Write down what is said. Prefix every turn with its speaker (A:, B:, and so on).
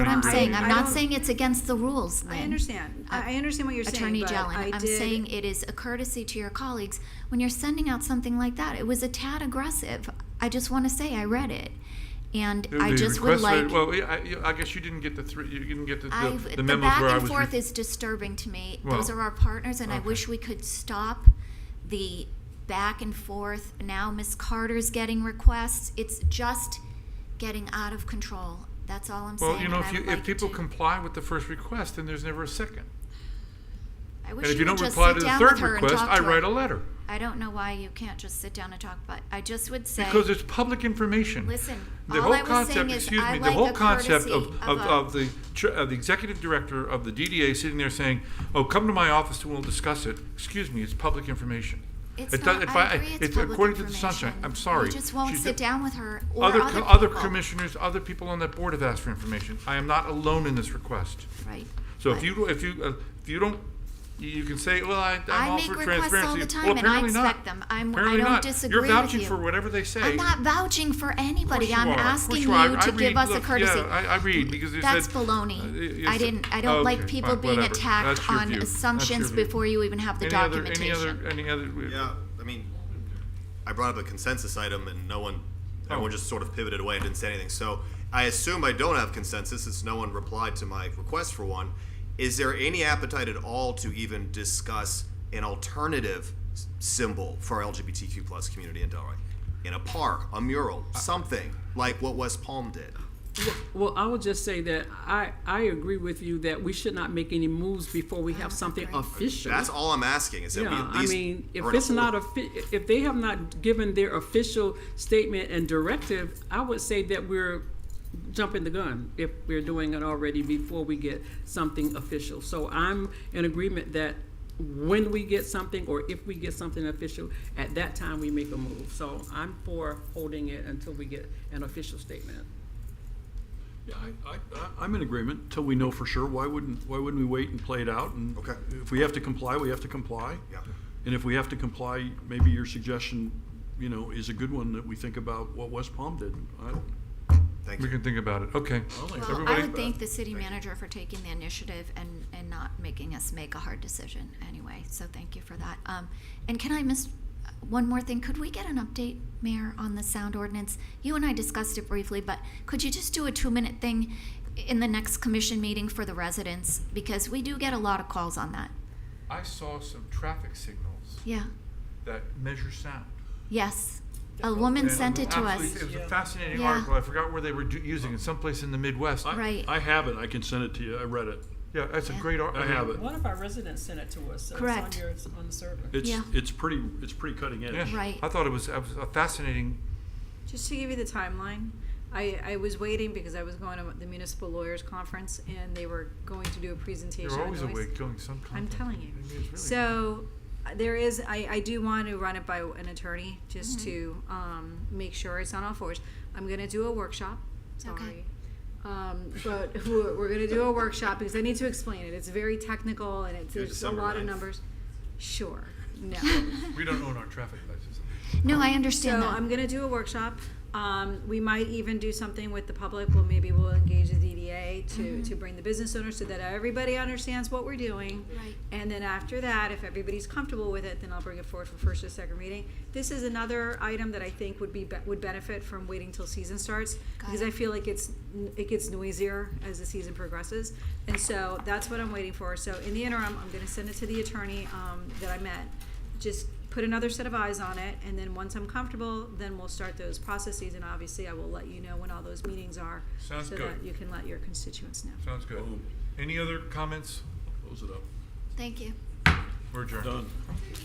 A: What I'm
B: I-
A: saying, I'm
B: I
A: not
B: don't-
A: saying it's against the rules,
B: I
A: Lynn.
B: understand. I I understand what you're saying,
A: Attorney
B: but I
A: Jelen, I'm
B: did-
A: saying it is a courtesy to your colleagues. When you're sending out something like that, it was a tad aggressive. I just want to say I read it. And I
C: The
A: just would
C: request
A: like,
C: letter- Well, yeah, I, you- I guess you didn't get the three, you didn't get the,
A: I,
C: the- the
A: the
C: memos
A: back
C: where I
A: and
C: was.
A: forth
C: re-
A: is disturbing to me. Those
C: Well,
A: are our partners and I
C: okay.
A: wish we could stop the back and forth. Now Ms. Carter's getting requests. It's just getting out of control. That's all I'm saying.
C: Well, you know,
A: and
C: if
A: I
C: you,
A: would
C: if
A: like it
C: people
A: to-
C: comply with the first request, then there's never a second.
A: I
C: And
A: wish
C: if you
A: you would
C: don't
A: just
C: reply
A: sit
C: to the
A: down
C: third
A: with her and
C: request,
A: talk
C: I
A: to
C: write a
A: her.
C: letter.
A: I don't know why you can't just sit down and talk, but I just would say,
C: Because it's public information.
A: Listen,
C: The
A: all
C: whole
A: I was
C: concept-
A: saying is
C: excuse
A: I
C: me,
A: like
C: The whole
A: the
C: concept of,
A: courtesy
C: of,
A: of a-
C: of the, tr- of the executive director of the DDA sitting there saying, oh, come to my office and we'll discuss it. Excuse me, it's public information.
A: it's
C: It does-
A: not,
C: if
A: I agree it's public
C: According to the sunshine,
A: information.
C: I'm sorry.
A: You just won't
C: She's
A: sit
C: do-
A: down with her or
C: Other,
A: other
C: co-
A: people.
C: other commissioners, other people on that board have asked for information. I am not alone in this request.
A: Right.
C: So if
A: But
C: you, if you, uh, if you don't, you- you can say, well, I,
A: I
C: I'm all
A: make
C: for
A: requests all
C: transparency.
A: the time
C: Well,
A: and I
C: apparently not.
A: expect them. I'm- I
C: Apparently
A: don't
C: not.
A: disagree with
C: You're vouching
A: you.
C: for whatever they say.
A: I'm not vouching for anybody.
C: Of course
A: I'm
C: you are. Of course
A: asking
C: you are.
A: you
C: I- I
A: to give
C: read-
A: us a
C: look,
A: courtesy.
C: Yeah, I, I read because you
A: That's
C: said.
A: baloney.
C: uh,
A: I
C: it's-
A: didn't, I don't
C: okay,
A: like people
C: fine,
A: being
C: whatever. That's
A: attacked
C: your
A: on
C: view. That's your
A: assumptions
C: view.
A: before you even have the
C: Any other- Any other,
A: documentation.
C: any other?
D: Yeah, I mean, I brought up a consensus item and no one,
C: Oh.
D: everyone just sort of pivoted away and didn't say anything. So I assume I don't have consensus since no one replied to my request for one. Is there any appetite at all to even discuss an alternative s- symbol for our LGBTQ plus community in Delray? In a park, a mural,
E: Uh,
D: something like what West Palm did.
E: Well, I would just say that I, I agree with you that we should not make any moves before we have something official.
D: That's all I'm asking. Is that we
E: Yeah,
D: at
E: I
D: least
E: mean, if
D: are in
E: it's not
D: order-
E: offi- if they have not given their official statement and directive, I would say that we're jumping the gun if we're doing it already before we get something official. So I'm in agreement that when we get something or if we get something official, at that time we make a move. So I'm for holding it until we get an official statement.
F: Yeah, I, I, I- I'm in agreement till we know for sure. Why wouldn't, why wouldn't we wait and play it out? And
D: Okay.
F: If we have to comply, we have to comply.
D: Yeah.
F: And if we have to comply, maybe your suggestion, you know, is a good one that we think about what West Palm did. I don't,
D: Thank
C: We
D: you.
C: can think about it. Okay.
A: Well, I
C: Everybody-
A: would thank the city manager for taking the initiative and, and not making us make a hard decision anyway, so thank you for that. Um, and can I miss, uh, one more thing, could we get an update, Mayor, on the sound ordinance? You and I discussed it briefly, but could you just do a two-minute thing in the next commission meeting for the residents? Because we do get a lot of calls on that.
C: I saw some traffic signals
A: Yeah,
C: that measure sound.
A: yes. A woman
C: And
A: sent it to us.
C: absolutely- It was a fascinating
A: Yeah.
C: article. I forgot where they were do- using it, someplace in the Midwest.
F: I-
A: Right.
F: I have it. I can send it to you. I read it.
C: Yeah, that's a
A: Yeah.
C: great article.
F: I have it.
E: One of our residents sent it to us, so
A: on Correct. your-
E: on the server.
F: It's,
A: Yeah.
F: it's pretty, it's pretty cutting edge.
C: Yeah.
A: Right.
C: I thought it was it was a fascinating
B: Just to give you the timeline, I, I was waiting because I was going to the municipal lawyers conference and they were going to do a presentation.
C: You're
B: on
C: always
B: noise.
C: awake doing some
B: I'm
C: content.
B: telling you.
C: I mean, it's really-
B: So uh, there is, I, I do want to run it by an attorney just
A: Mm-hmm.
B: to um, make sure it's on all fours. I'm going to do a workshop. Sorry.
A: Okay.
B: Um, but we're, we're going to do a workshop because I need to explain it. It's very technical and it's,
D: Through
B: there's a
D: December
B: lot of
D: 9th.
B: numbers. Sure. No.
C: We don't own our traffic lights.
A: No, I
B: So
A: understand
B: I'm
A: that.
B: gonna do a workshop. Um, we might even do something with the public. Well, maybe we'll engage the DDA to,
A: Mm-hmm.
B: to bring the business owners so that everybody understands what we're doing.
A: Right.
B: And then after that, if everybody's comfortable with it, then I'll bring it forward for first or second reading. This is another item that I think would be, be- would benefit from waiting till season starts. Because
A: it.
B: I feel like it's, n- it gets noisier as the season progresses. And so that's what I'm waiting for. So in the interim, I'm gonna send it to the attorney, um, that I met just put another set of eyes on it, and then once I'm comfortable, then we'll start those processes, and obviously I will let you know when all those meetings are.
C: Sounds
B: So that
C: good.
B: you can let your constituents know.
C: Sounds good.
F: Boom.
C: Any other comments?
F: Close it up.
A: Thank you.
C: We're adjourned.
F: Done.